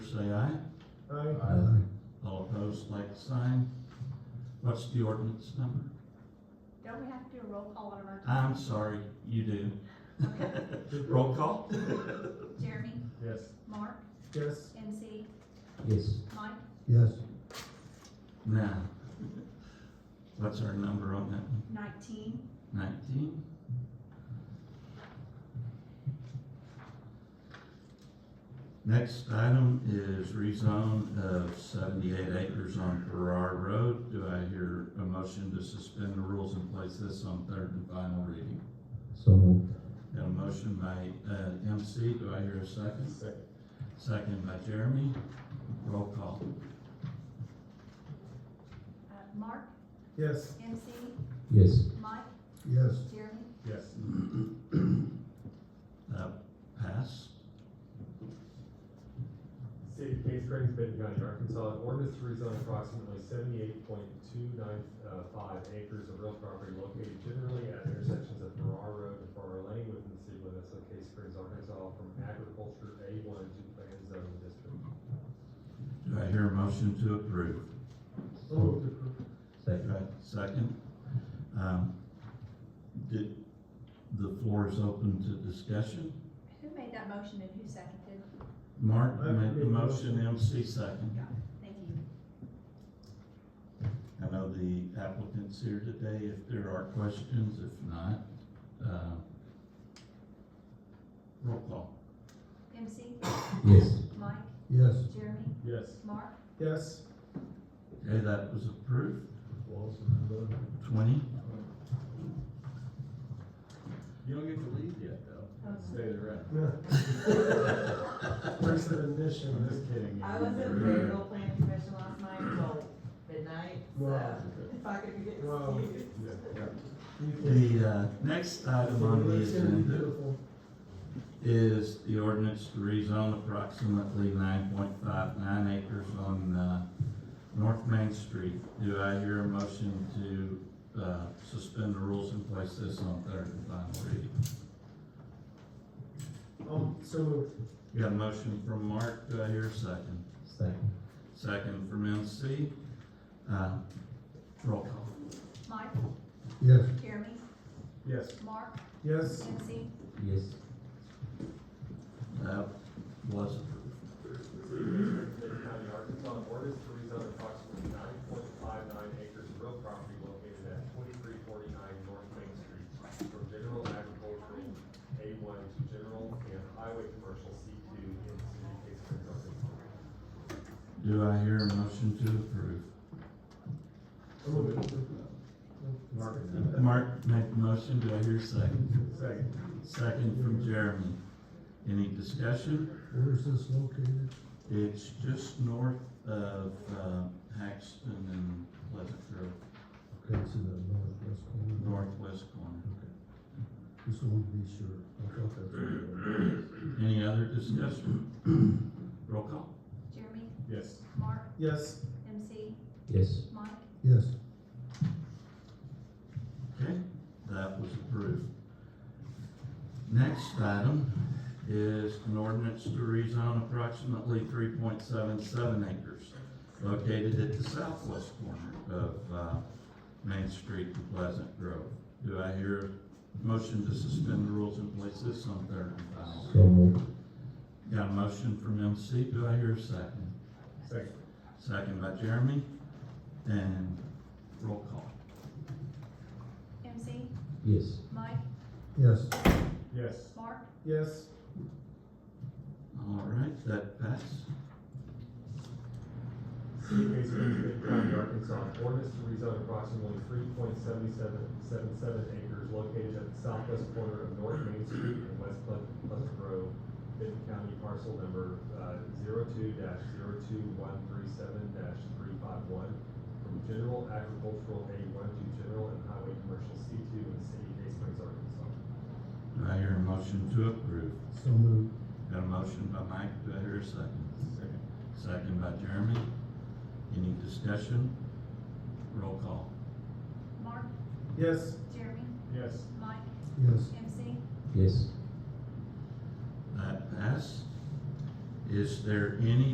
say aye. Aye. All opposed, like sign. What's the ordinance number? Don't we have to do a roll call on emergency? I'm sorry, you do. Roll call? Jeremy, Yes. Mark, Yes. NC, Yes. Mike, Yes. Now, what's our number on that one? nineteen. Nineteen? Next item is rezone of seventy-eight acres on Farrar Road. Do I hear a motion to suspend the rules and place this on third and final reading? So moved. Got a motion by, uh, MC, do I hear a second? Second. Second by Jeremy, roll call. Uh, Mark, Yes. NC, Yes. Mike, Yes. Jeremy, Yes. Uh, pass, City of Case Springs, Benton County, Arkansas, an ordinance to rezone approximately seventy-eight point two nine five acres of real property located generally at intersections of Farrar Road and Farrar Lane within the city limits of Case Springs, Arkansas, from agriculture A one to plan zone district. do I hear a motion to approve? So moved. Approved. Second. Right, second. Um, Did, the floor is open to discussion. who made that motion and who seconded? Mark I made made the the motion, MC second. Thank you. I know the applicant's here today, if there are questions, if not, uh, roll call. MC, Yes. Mike, Yes. Jeremy, Yes. Mark, Yes. Okay, that was approved, Walls twenty. You don't get to leave yet, though. Stay the rest. First of admission. just kidding. I was at the Mm-hmm. Fayetteville Planning Commission last night till midnight, so Wow. if I could get Wow. excused. You can- The uh, next item on the It's gonna be agenda beautiful. is the ordinance to rezone approximately nine point five nine acres on, uh, North Main Street. Do I hear a motion to, uh, suspend the rules and place this on third and final reading? Um, so moved. Got a motion from Mark, do I hear a second? Second. Second from MC, uh, roll call. Mike, Yes. Jeremy, Yes. Mark, Yes. NC, Yes. That was approved. Benton County, Arkansas, an ordinance to rezone approximately nine point five nine acres of real property located at twenty-three forty-nine North Main Street from general agricultural A one to general and highway commercial C two in the city of Case Springs, Arkansas. Do I hear a motion to approve? So moved. Mark made the motion, do I hear a second? Second. Second from Jeremy. Any discussion? Where is this located? It's just north of, uh, Haxton and Pleasant Grove, Okay, it's in the northwest corner. northwest corner. Just want to be sure. I thought that's where it was. Any other discussion? Roll call? Jeremy, Yes. Mark, Yes. MC, Yes. Mike, Yes. Okay, that was approved. Next item is an ordinance to rezone approximately three point seven seven acres located at the southwest corner of, uh, Main Street and Pleasant Grove. Do I hear a motion to suspend the rules and place this on third and final? So moved. Got a motion from MC, do I hear a second? Second. Second by Jeremy, and roll call. MC, Yes. Mike, Yes. Yes. Mark, Yes. All right, that passed. City of Case Springs, Benton County, Arkansas, an ordinance to rezone approximately three point seventy-seven, seven seven acres located at the southwest corner of North Main Street and West Ple- Pleasant Grove, Benton County parcel number, uh, zero-two dash zero-two-one-three-seven dash three-five-one, from general agricultural A one to general and highway commercial C two in the city of Case Springs, Arkansas. Do I hear a motion to approve? So moved. Got a motion by Mike, do I hear a second? Second by Jeremy. Any discussion? Roll call. Mark, Yes. Jeremy, Yes. Mike, Yes. MC, Yes. That passed. Is there any